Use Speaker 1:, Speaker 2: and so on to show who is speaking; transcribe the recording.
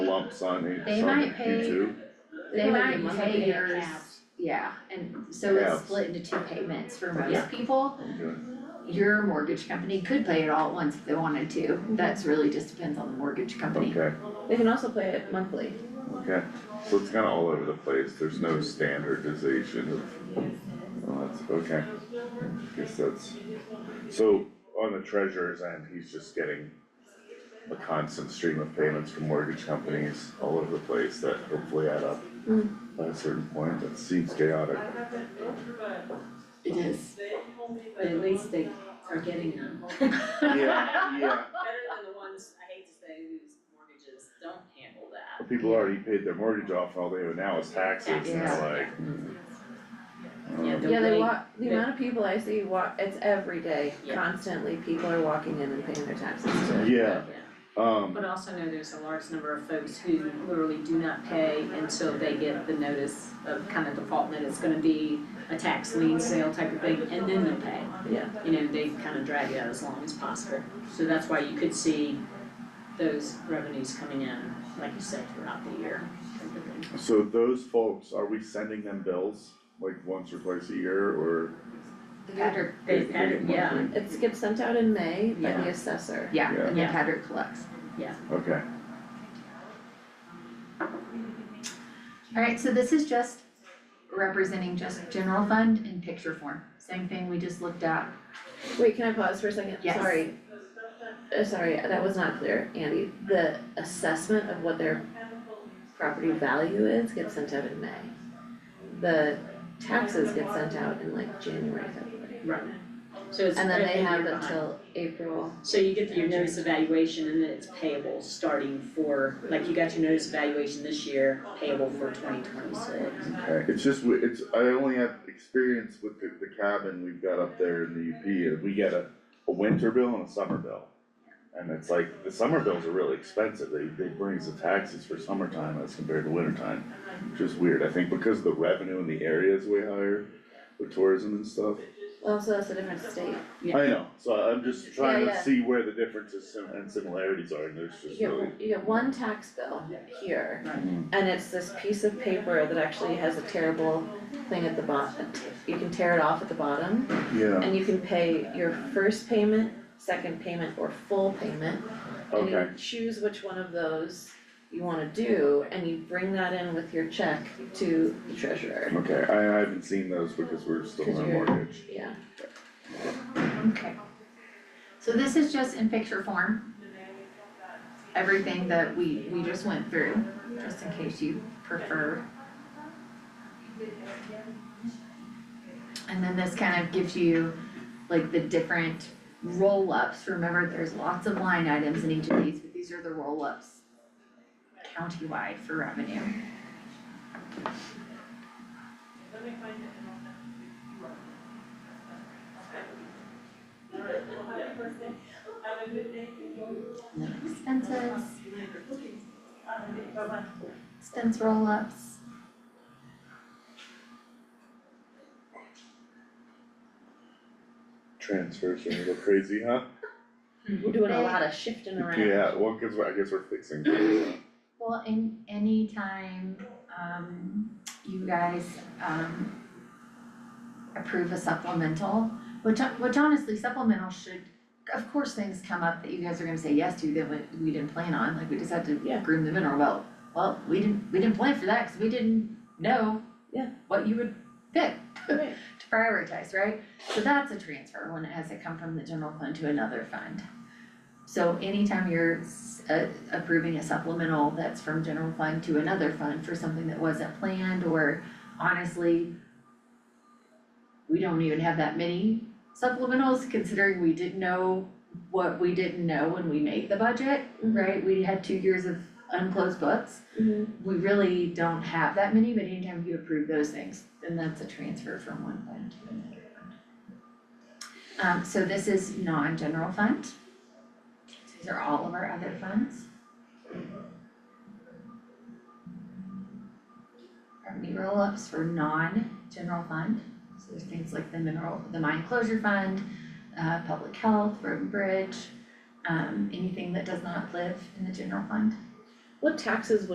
Speaker 1: pumps on each,
Speaker 2: They
Speaker 1: on
Speaker 2: might
Speaker 1: each
Speaker 2: pay-
Speaker 1: two,
Speaker 2: They
Speaker 3: Like
Speaker 2: might
Speaker 3: monthly
Speaker 2: pay
Speaker 3: or
Speaker 2: yours,
Speaker 3: half.
Speaker 2: yeah, and so it's
Speaker 1: Halves.
Speaker 2: split into two payments for most
Speaker 3: Yeah.
Speaker 2: people.
Speaker 1: okay,
Speaker 2: Your mortgage company could pay it all at once if they wanted to, that's really just depends on the mortgage company.
Speaker 1: okay,
Speaker 3: They can also play it monthly.
Speaker 1: okay. So it's kinda all over the place, there's no standardization of, well, that's, okay. Guess that's, so on the treasurer's end, he's just getting a constant stream of payments from mortgage companies all over the place that hopefully add up
Speaker 2: Mm.
Speaker 1: at a certain point, that seems chaotic.
Speaker 2: It is.
Speaker 3: But at least they are getting them.
Speaker 1: Yeah, yeah.
Speaker 4: better than the ones, I hate to say, whose mortgages don't handle that.
Speaker 1: But People already paid their mortgage off, all they have now is taxes, and
Speaker 2: Yeah.
Speaker 1: they're like,
Speaker 4: Yeah,
Speaker 1: um,
Speaker 4: the
Speaker 3: Mm-hmm. Yeah, they
Speaker 4: way-
Speaker 3: walk, the
Speaker 4: they-
Speaker 3: amount of people I see walk, it's every day,
Speaker 4: Yeah.
Speaker 3: constantly, people are walking in and paying their taxes to.
Speaker 1: yeah, um.
Speaker 4: But also know there's a large number of folks who literally do not pay until they get the notice of kind of default that it's gonna be a tax lien sale type of thing, and then they'll pay.
Speaker 3: Yeah.
Speaker 4: You know, they kind of drag it out as long as possible, so that's why you could see those revenues coming in, like you said, throughout the year. type of thing.
Speaker 1: So those folks, are we sending them bills like once or twice a year or?
Speaker 2: Patrick,
Speaker 4: They,
Speaker 1: they get
Speaker 4: yeah,
Speaker 1: monthly?
Speaker 3: It gets sent out in May by
Speaker 4: Yeah.
Speaker 3: the assessor.
Speaker 2: yeah, and then
Speaker 4: Yeah.
Speaker 2: Patrick collects.
Speaker 1: Okay,
Speaker 2: Alright, so this is just representing just general fund in picture form, same thing we just looked at.
Speaker 3: Wait, can I pause for a second?
Speaker 2: Yes.
Speaker 3: Sorry. Uh, sorry, that was not clear, Andy. The assessment of what their property value is gets sent out in May. The taxes get sent out in like January, February.
Speaker 4: right. So it's.
Speaker 3: And then they
Speaker 4: every
Speaker 3: have
Speaker 4: year behind.
Speaker 3: until April.
Speaker 4: So you get your notice evaluation and then it's payable starting for, like you got your notice evaluation this year, payable for twenty twenty-six.
Speaker 1: okay, it's just, we- it's, I only have experience with the, the cabin we've got up there in the UP, and we get a, a winter bill and a summer bill. And it's like, the summer bills are really expensive, they, they bring us the taxes for summertime as compared to wintertime, which is weird, I think because the revenue in the area is way higher with tourism and stuff.
Speaker 3: Well, so that's a different state.
Speaker 1: I know, so I'm just trying to
Speaker 3: Yeah, yeah.
Speaker 1: see where the differences and similarities are, and there's
Speaker 3: You
Speaker 1: just really.
Speaker 3: get, you get one tax bill here.
Speaker 4: Right.
Speaker 3: And it's this piece of paper that actually has a terrible thing at the bottom. You can tear it off at the bottom.
Speaker 1: Yeah,
Speaker 3: And you can pay your first payment, second payment, or full payment. And you
Speaker 1: Okay.
Speaker 3: choose which one of those you wanna do, and you bring that in with your check to the treasurer.
Speaker 1: okay, I I haven't seen those because we're still
Speaker 3: Because
Speaker 1: on
Speaker 3: you're-
Speaker 1: mortgage.
Speaker 3: Yeah,
Speaker 2: Okay. So this is just in picture form. Everything that we, we just went through, just in case you prefer. And then this kind of gives you like the different roll-ups, remember there's lots of line items in each of these, but these are the roll-ups countywide for revenue. And then expenses. Expense roll-ups.
Speaker 1: Transfers are a little crazy, huh?
Speaker 3: we're doing a lot of shifting around.
Speaker 1: Yeah, well, cause I guess we're fixing things.
Speaker 2: Well, in any time, um, you guys, um, approve a supplemental, which, which honestly supplemental should, of course, things come up that you guys are gonna say yes to that we, we didn't plan on, like we just had to
Speaker 3: Yeah.
Speaker 2: groom the mineral well. Well, we didn't, we didn't plan for that, cause we didn't know
Speaker 3: Yeah.
Speaker 2: what you would pick
Speaker 3: Right.
Speaker 2: to prioritize, right? So that's a transfer when it has to come from the general fund to another fund. So anytime you're s- uh, approving a supplemental that's from general fund to another fund for something that wasn't planned or honestly, we don't even have that many supplementals considering we didn't know what we didn't know when we made the budget, right? We had two years of unclosed books
Speaker 3: Mhm.
Speaker 2: we really don't have that many, but anytime you approve those things, then that's a transfer from one fund to another fund. Um, so this is non-general fund. These are all of our other funds. Property roll-ups for non-general fund, so there's things like the mineral, the mine closure fund, uh, public health, road and bridge, um, anything that does not live in the general fund.
Speaker 3: What taxes